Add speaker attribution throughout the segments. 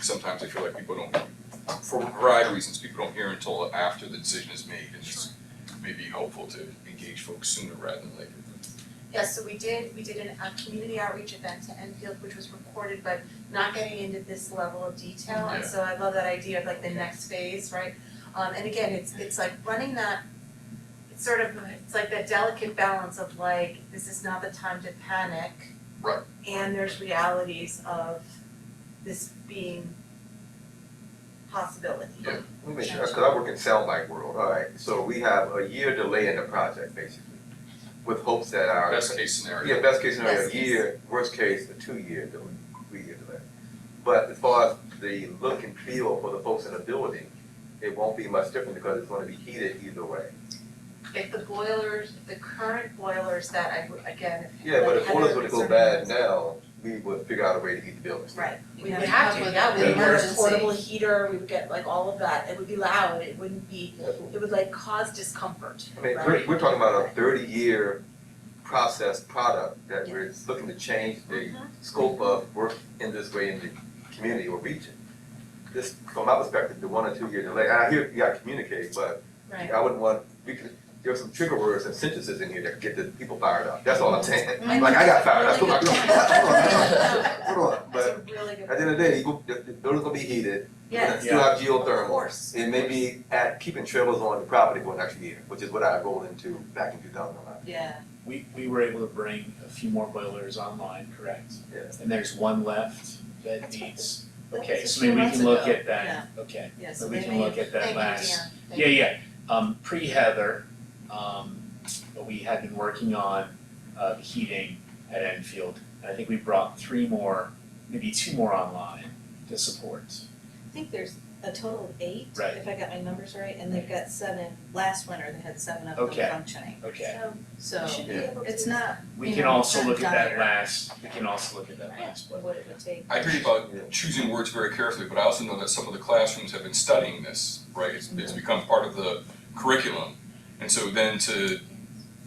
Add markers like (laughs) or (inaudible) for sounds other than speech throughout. Speaker 1: sometimes I feel like people don't, for a variety of reasons, people don't hear until after the decision is made. And it's maybe helpful to engage folks sooner rather than later.
Speaker 2: Yes, so we did, we did an, a community outreach event to Enfield, which was recorded, but not getting into this level of detail, and
Speaker 1: Yeah.
Speaker 2: so I love that idea of like the next phase, right? Um, and again, it's, it's like running that, it's sort of, it's like that delicate balance of like, this is not the time to panic.
Speaker 1: Right.
Speaker 2: And there's realities of this being possibility.
Speaker 1: Yeah.
Speaker 3: Let me make sure, because I work in sound like world, all right, so we have a year delay in the project basically, with hopes that our.
Speaker 1: Best case scenario.
Speaker 3: Yeah, best case scenario, a
Speaker 2: Best case.
Speaker 3: year, worst case, a two-year delay, three-year delay. But as far as the look and feel for the folks in the building, it won't be much different because it's gonna be heated either way.
Speaker 2: If the boilers, if the current boilers that I, would- again, if.
Speaker 3: Yeah, but
Speaker 2: like
Speaker 3: if boilers
Speaker 2: Heather
Speaker 3: were to go
Speaker 2: concerned
Speaker 3: bad
Speaker 2: was-
Speaker 3: now, we would figure out a way to heat the building.
Speaker 2: Right, we
Speaker 4: Yeah.
Speaker 2: would have to, yeah, we
Speaker 3: Yeah.
Speaker 2: would have a
Speaker 4: Emergency.
Speaker 2: portable heater, we would get like all of that, it would be loud, it wouldn't be,
Speaker 3: That's
Speaker 2: it would like cause discomfort,
Speaker 3: I mean, we're,
Speaker 2: right?
Speaker 3: we're talking about a thirty-year process product that we're looking to change the
Speaker 2: Uh-huh.
Speaker 3: scope of work in this way in the community or region. This, from my perspective, the one or two year delay, and I hear you gotta communicate, but
Speaker 2: Right,
Speaker 3: I wouldn't want, we could, there are some trigger words and sentences in here that could get the people fired up, that's all I'm saying.
Speaker 2: Mhm.
Speaker 3: Like, I got fired up,
Speaker 2: Really
Speaker 3: hold
Speaker 2: good
Speaker 3: on,
Speaker 2: point.
Speaker 3: hold on,
Speaker 2: that's
Speaker 3: but
Speaker 2: a really good.
Speaker 3: at the end of the day, you, the, the building's gonna be heated, we
Speaker 2: Yeah,
Speaker 3: still have
Speaker 2: of
Speaker 3: geothermal.
Speaker 2: course,
Speaker 3: It may be at keeping trails on the property for an extra year, which is what I rolled into back in two thousand and eleven.
Speaker 4: Yeah.
Speaker 5: We, we were able to bring a few more boilers online, correct?
Speaker 3: Yeah.
Speaker 5: And there's one left that
Speaker 2: That's what
Speaker 5: needs,
Speaker 4: that was
Speaker 5: okay,
Speaker 4: a
Speaker 5: so
Speaker 4: few
Speaker 5: maybe we
Speaker 4: months
Speaker 5: can look
Speaker 4: ago,
Speaker 5: at that, okay,
Speaker 4: Yeah, so
Speaker 5: but we
Speaker 4: they
Speaker 5: can
Speaker 4: may-
Speaker 5: look at that
Speaker 2: Thank you,
Speaker 5: last.
Speaker 2: Dan.
Speaker 5: Yeah, yeah, um, pre-Heather, um, but we had been working on, uh, the heating at Enfield. And I think we brought three more, maybe two more online to support.
Speaker 4: I think there's a total of eight,
Speaker 5: Right.
Speaker 4: if I got my numbers right, and they've got seven, last winter, they had seven of
Speaker 5: Okay.
Speaker 4: them functioning,
Speaker 5: Okay,
Speaker 4: so
Speaker 2: should be
Speaker 3: Yeah.
Speaker 2: able to.
Speaker 4: it's not,
Speaker 5: we
Speaker 4: You
Speaker 5: can
Speaker 4: know,
Speaker 5: also
Speaker 4: it's
Speaker 5: look at that
Speaker 4: dire.
Speaker 5: last, we can also look at that
Speaker 4: yeah,
Speaker 5: last, but.
Speaker 4: what it would take.
Speaker 1: I agree about choosing words very carefully, but I also know that some of the classrooms have been studying this, right? It's, it's become part of the curriculum. And so then to,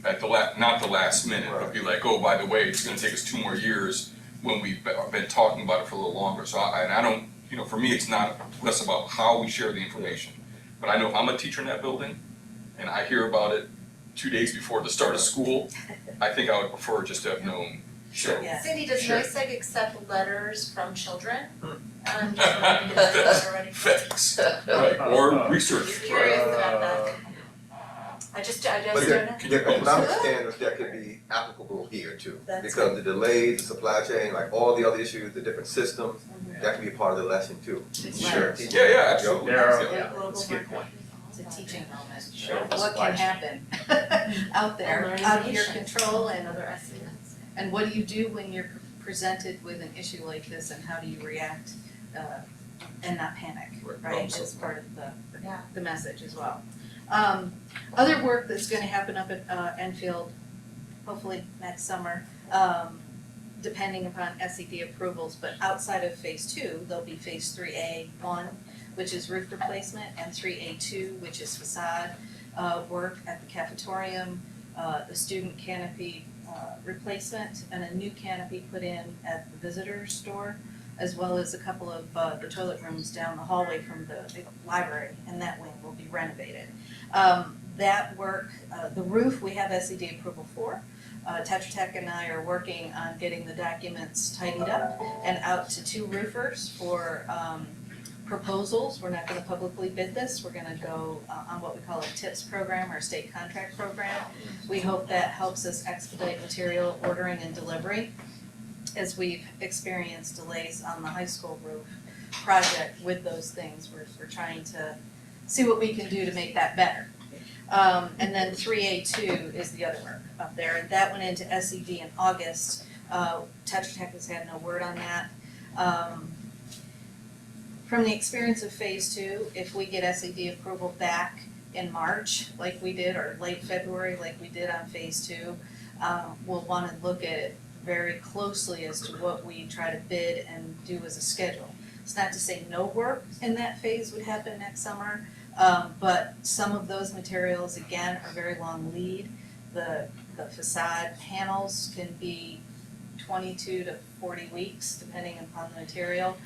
Speaker 1: at the la, not the last minute, but be like, oh, by the way, it's gonna take us two more years when we've be- been talking about it for a little longer. So I, and I don't, you know, for me, it's not less about how we share the information. But I know I'm a teacher in that building and I hear about it two days before the start of school. I think I would prefer just to have known, so.
Speaker 4: Yeah.
Speaker 2: Cindy, does
Speaker 1: Sure.
Speaker 2: NICEAG accept letters from children?
Speaker 5: Hmm.
Speaker 2: Um,
Speaker 5: (laughs)
Speaker 2: already.
Speaker 1: Facts, right, or research,
Speaker 2: You're
Speaker 1: right?
Speaker 2: curious about that. I just, I
Speaker 3: But
Speaker 2: just don't know.
Speaker 3: there,
Speaker 1: Can you
Speaker 3: there are economic
Speaker 2: post-
Speaker 3: standards that could be applicable here too,
Speaker 4: That's
Speaker 3: because the delays, the supply chain, like all the other issues, the different systems,
Speaker 2: Mm-hmm.
Speaker 3: that could be part of the lesson too.
Speaker 4: Sure.
Speaker 1: Yeah, yeah, absolutely.
Speaker 5: There are-
Speaker 1: Yeah.
Speaker 5: yeah,
Speaker 2: global
Speaker 5: that's a
Speaker 2: market.
Speaker 5: good point.
Speaker 4: It's a teaching moment,
Speaker 5: Sure.
Speaker 4: what can happen (laughs) out there,
Speaker 2: Learning
Speaker 4: out of your
Speaker 2: nation.
Speaker 4: control and
Speaker 2: Other estimates.
Speaker 4: And what do you do when you're presented with an issue like this and how do you react uh and not panic,
Speaker 1: Right,
Speaker 4: right,
Speaker 1: problem
Speaker 4: is
Speaker 1: solving.
Speaker 4: part of the
Speaker 2: Yeah.
Speaker 4: the message as well. Um other work that's gonna happen up at uh Enfield, hopefully next summer, um depending upon SED approvals, but outside of phase two, there'll be phase three A one, which is roof replacement, and three A two, which is facade uh work at the cafetorium, uh the student canopy uh replacement and a new canopy put in at the visitor's store, as well as a couple of uh the toilet rooms down the hallway from the big library, and that wing will be renovated. Um that work, uh the roof, we have SED approval for. Uh Tetra Tech and I are working on getting the documents tidied up and out to two roofers for um proposals, we're not gonna publicly bid this, we're gonna go uh, on what we call a TIPS program or a state contract program. We hope that helps us expedite material ordering and delivery as we've experienced delays on the high school roof project with those things, we're, we're trying to see what we can do to make that better. Um, and then three A two is the other work up there, and that went into SED in August, uh, Tetra Tech has had no word on that. Um, from the experience of phase two, if we get SED approval back in March, like we did, or late February, like we did on phase two, um, we'll wanna look at it very closely as to what we try to bid and do as a schedule. It's not to say no work in that phase would happen next summer, um, but some of those materials, again, are very long lead. The, the facade panels can be twenty-two to forty weeks, depending upon the material.